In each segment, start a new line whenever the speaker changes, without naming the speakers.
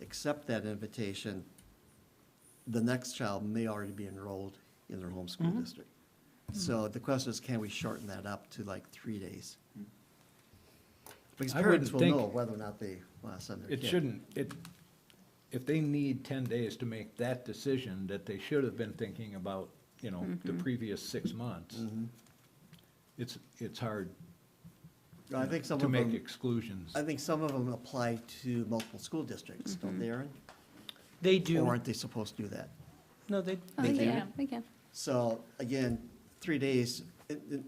accept that invitation, the next child may already be enrolled in their home school district. So the question is, can we shorten that up to like three days? Because
I would
parents will
think-
know whether or not they want to send their kid.
It shouldn't, Hmm. it, if they need ten days to make that decision that they should have been thinking about, you know,
Mm-hmm.
the previous six months, it's, it's hard
I think some
to
of
make
them,
exclusions.
I think some of them apply to multiple school districts, don't they, Aaron?
They
Or
do.
aren't they supposed to do that?
No, they,
Oh,
they
they
do.
can, they can.
So again, three days, it- it-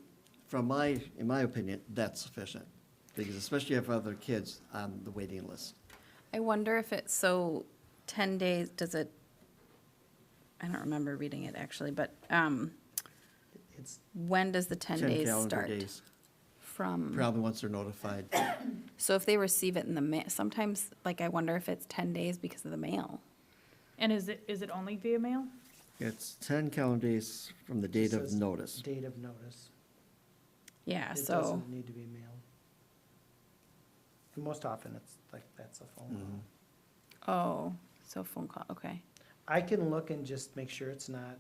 from my, in my opinion, that's sufficient. Because especially if other kids on the waiting list.
I wonder if it's, so 10 days, does it, I don't remember reading it actually, but um,
It's
when does the 10 days
calendar
start?
days.
From,
Probably once they're notified.
so if they receive it in the mail, sometimes, like, I wonder if it's 10 days because of the mail.
And is it, is it only via mail?
It's ten calendar days from the date of
Says
notice.
Date of notice.
Yeah,
It
so.
doesn't need to be mailed. And most often, it's like, that's a
Mm-hmm.
phone call.
Oh, so phone call, okay.
I can look and just make sure it's not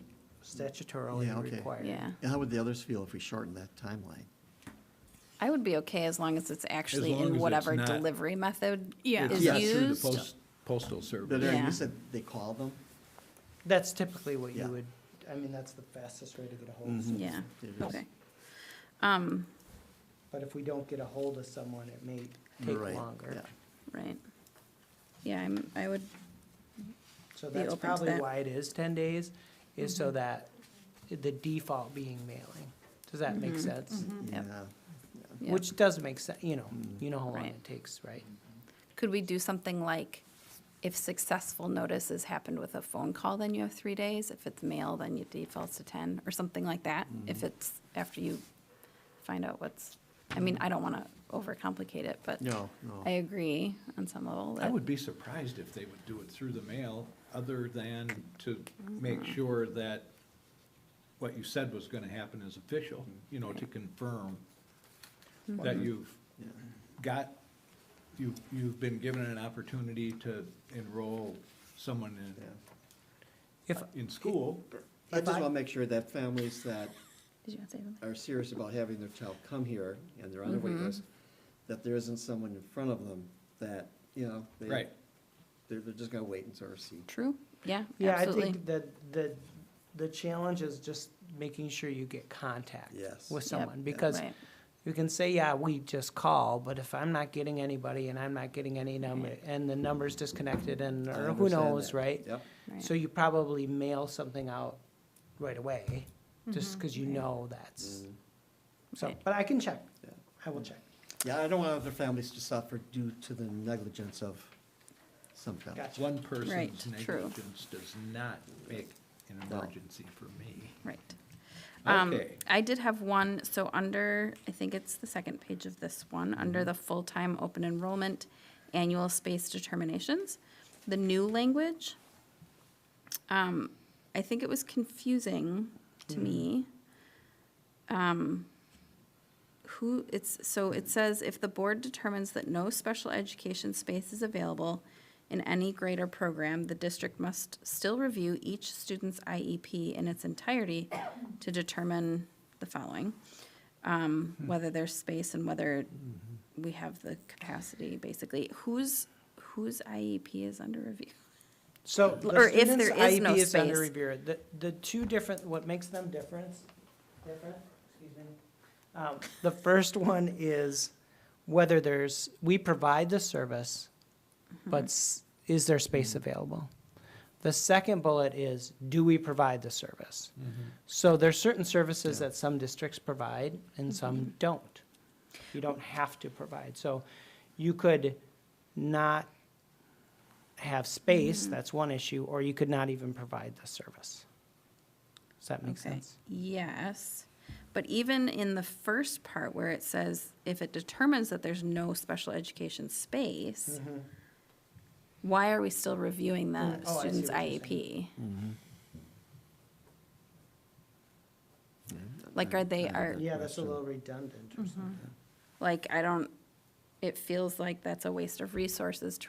Yeah,
statutorily
okay.
required.
Yeah.
And How would the others feel if we shortened that timeline?
I would be okay as long as it's actually
long as
in
it's
whatever
not-
delivery method
Yeah.
is
Yeah,
Not through the
used.
post- Postal
But
service.
Aaron,
Yeah.
you said they call them?
That's typically what
Yeah. Mm-hmm.
you would, I mean, that's the fastest way to get a hold of someone.
Yeah,
It is.
okay. Um,
But if we don't get a hold of someone, it may take
Right,
longer.
yeah.
right. Yeah, I'm, I would,
So
Be
that's
open to
probably
that. Mm-hmm.
why it is ten days, is so that the default being mailing. Does that
Mm-hmm.
make sense?
Yep.
Yeah.
yeah.
Which does make sense, you know, you know how long
Right.
it takes, right?
Could we do something like, if successful notice has happened with a phone call, then you have three days? If it's mail, then you default to ten, or something like that?
Mm-hmm.
If it's after you find out what's, I mean, I don't want to overcomplicate it, but
No, no.
I agree on some level
I
that,
would be surprised if they would do it through the mail, other than to make
Mm-hmm.
sure that what you said was gonna happen is official, you know, to confirm that
Mm-hmm.
you've got, you've, you've been given an opportunity to enroll someone
If,
in, in school.
I
If
just
I-
want to make sure that families that
did you want to say something?
are serious about having their child come here and they're on their wait
Mm-hmm.
list, that there isn't someone in front of them that, you know, they,
Right.
they're, they're just gonna wait and sort of see.
True, yeah,
yeah, I
absolutely.
think that the, the challenge is just making sure you get contact
Yes.
with
Yep.
someone. Because
Right.
you can say, yeah, we just call, but if I'm not getting anybody and I'm not getting any number, and the number's disconnected and,
I
or who
understand
knows,
that.
right?
Yep.
Right.
So you probably mail something out right away, just because you know
Mm-hmm.
that's, so,
Mm-hmm. Right.
but I can check.
Yeah.
I will check.
Yeah, I don't want other families to suffer due to the negligence of some families.
Gotcha.
One
Right,
person's
true.
negligence does not make an
No.
emergency for me.
Right. Um,
Okay.
I did have one, so under, I think it's the second page of this one, under the full-time open enrollment annual space determinations, the new language. Um, I think it was confusing to me. Um, who, it's, so it says, if the board determines that no special education space is available in any grade or program, the district must still review each student's IEP in its entirety to determine the following. Um,
Hmm.
whether there's space and whether we have the capacity, basically. Whose, whose IEP is under review?
So the
Or if
student's
there is no
IEP is under
space.
review. The, the two different, what makes them different, different, excuse me. Um, The first one is whether there's, we provide the service,
Mm-hmm.
but s- is there space available? The second bullet is, do we provide the service? So there's certain services that some districts provide and some don't. You don't have to provide. So you could not have space, that's one issue, or you could not even provide the service. Does that make
Okay.
sense?
Yes, but even in the first part where it says, if it determines that there's no special education space,
Mm-hmm.
why are we still reviewing the
Mm, Hmm. oh, I see
student's E
what you're
IEP?
Mm-hmm.
Like, are they, are,
Yeah, that's a little Mm-hmm. redundant or something.
like, I don't, it feels like that's a waste of resources to